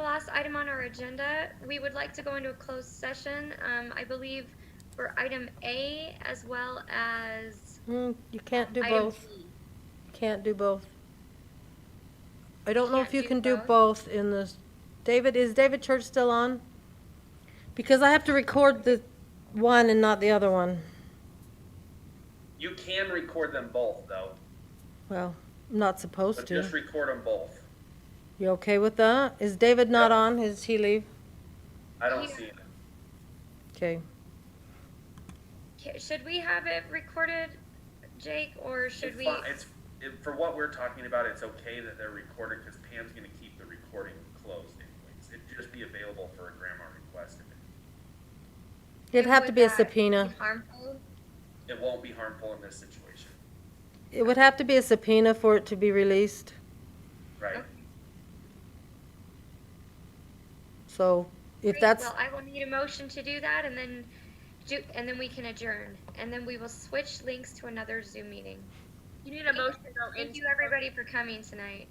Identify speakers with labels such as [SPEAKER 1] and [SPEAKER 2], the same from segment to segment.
[SPEAKER 1] last item on our agenda, we would like to go into a closed session, um, I believe for item A as well as
[SPEAKER 2] Mm, you can't do
[SPEAKER 1] item
[SPEAKER 2] both,
[SPEAKER 1] B.
[SPEAKER 2] can't do both. I don't know if
[SPEAKER 1] Can't
[SPEAKER 2] you
[SPEAKER 1] do
[SPEAKER 2] can do
[SPEAKER 1] both?
[SPEAKER 2] both in this, David, is David Church still on? Because I have to record the one and not the other one.
[SPEAKER 3] You can record them both, though,
[SPEAKER 2] Well, I'm not
[SPEAKER 3] but
[SPEAKER 2] supposed to.
[SPEAKER 3] just record them both.
[SPEAKER 2] You okay with that? Is David not
[SPEAKER 3] Yeah.
[SPEAKER 2] on? Is he leave?
[SPEAKER 3] I don't
[SPEAKER 1] Yeah.
[SPEAKER 3] see it.
[SPEAKER 2] Okay.
[SPEAKER 1] Ca- Should we have it recorded, Jake, or should
[SPEAKER 3] It's
[SPEAKER 1] we?
[SPEAKER 3] fi- It's, it- for what we're talking about, it's okay that they're recorded, because Pam's gonna keep the recording closed anyways. It'd just be available for a grandma request. if
[SPEAKER 2] It'd have to
[SPEAKER 1] would
[SPEAKER 2] be a
[SPEAKER 1] that
[SPEAKER 2] subpoena.
[SPEAKER 1] be Harmful?
[SPEAKER 3] It it won't be harmful in this situation,
[SPEAKER 2] It would have to be a subpoena for it to be released,
[SPEAKER 3] right?
[SPEAKER 1] Okay.
[SPEAKER 2] so if
[SPEAKER 1] Great.
[SPEAKER 2] that's,
[SPEAKER 1] Well, I will need a motion to do that and then do, and then we can adjourn. And then we will switch links to another Zoom meeting.
[SPEAKER 4] You need a motion to go
[SPEAKER 1] Thank
[SPEAKER 4] into.
[SPEAKER 1] you, everybody, for coming tonight.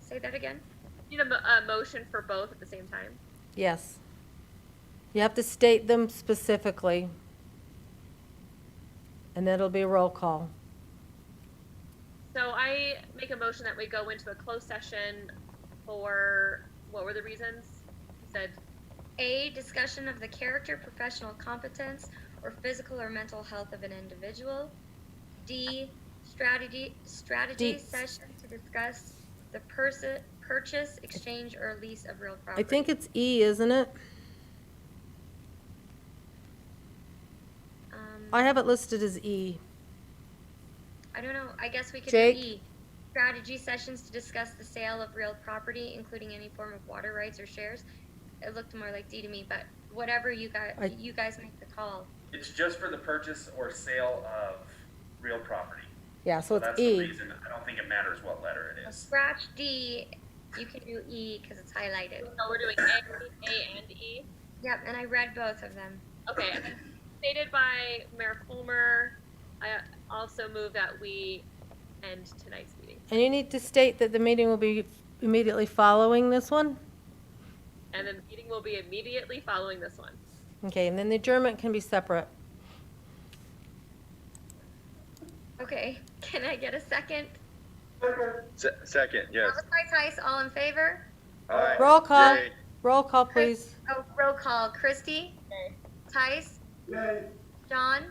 [SPEAKER 1] Say that again?
[SPEAKER 4] You need a, mo- a motion for both at the same time.
[SPEAKER 2] yes. You have to state them specifically. And then it'll be a roll call.
[SPEAKER 4] So I make a motion that we go into a closed session for, what were the reasons? You said,
[SPEAKER 1] A, discussion of the character, professional competence, or physical or mental health of an individual. D, strategy, strategy
[SPEAKER 2] D.
[SPEAKER 1] session to discuss the person, purchase, exchange, or lease of real
[SPEAKER 2] I
[SPEAKER 1] property.
[SPEAKER 2] think it's E, isn't it?
[SPEAKER 1] Um,
[SPEAKER 2] I have it listed as E.
[SPEAKER 1] I don't know, I guess we could do
[SPEAKER 2] Jake?
[SPEAKER 1] E. Strategy sessions to discuss the sale of real property, including any form of water rights or shares. It looked more like D to me, but whatever you guys,
[SPEAKER 2] I-
[SPEAKER 1] you guys make the call.
[SPEAKER 3] It's just for the purchase or sale of real property.
[SPEAKER 2] Yeah, so it's
[SPEAKER 3] That's the
[SPEAKER 2] E.
[SPEAKER 3] reason, I don't think it matters what letter it is.
[SPEAKER 1] Scratch D, you can do E because it's highlighted.
[SPEAKER 4] no, oh, we're doing A, A and E.
[SPEAKER 1] Yep, and I read both of them.
[SPEAKER 4] Okay, stated by Mayor Fulmer, I also move that we end tonight's meeting.
[SPEAKER 2] And you need to state that the meeting will be immediately following this one?
[SPEAKER 4] And then the meeting will be immediately following this one.
[SPEAKER 2] Okay, and then the adjournment can be separate.
[SPEAKER 1] Okay, can I get a second?
[SPEAKER 5] Se- Second, yes.
[SPEAKER 1] That was my price, all in favor?
[SPEAKER 5] Aye.
[SPEAKER 2] Roll call,
[SPEAKER 5] Yay.
[SPEAKER 2] roll call, please.
[SPEAKER 1] Oh, roll call, Christie? Tice? John?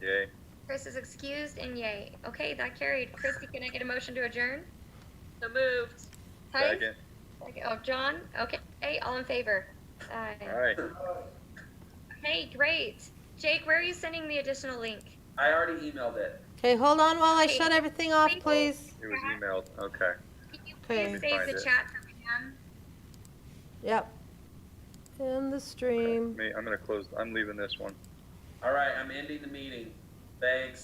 [SPEAKER 5] Yay.
[SPEAKER 1] Chris is excused and yay. Okay, that carried. Christie, can I get a motion to adjourn?
[SPEAKER 4] So moved.
[SPEAKER 1] Tice?
[SPEAKER 5] Second.
[SPEAKER 1] Okay, Oh, John? Okay, hey, all in favor?
[SPEAKER 5] All
[SPEAKER 1] Aye.
[SPEAKER 5] right.
[SPEAKER 1] Hey, great. Jake, where are you sending the additional link?
[SPEAKER 3] I already emailed it.
[SPEAKER 2] Okay, hold on while I
[SPEAKER 1] Okay.
[SPEAKER 2] shut everything off,
[SPEAKER 1] Thank you.
[SPEAKER 2] please.
[SPEAKER 5] It was emailed. Okay.
[SPEAKER 1] Can you
[SPEAKER 2] Okay. Let
[SPEAKER 1] please
[SPEAKER 5] me
[SPEAKER 1] save
[SPEAKER 5] find
[SPEAKER 1] the
[SPEAKER 5] it.
[SPEAKER 1] chat for Pam?
[SPEAKER 2] Yep. In the
[SPEAKER 5] Okay.
[SPEAKER 2] stream.
[SPEAKER 5] Me, I'm gonna close. I'm leaving this one.
[SPEAKER 3] All right, I'm ending the meeting. Thanks.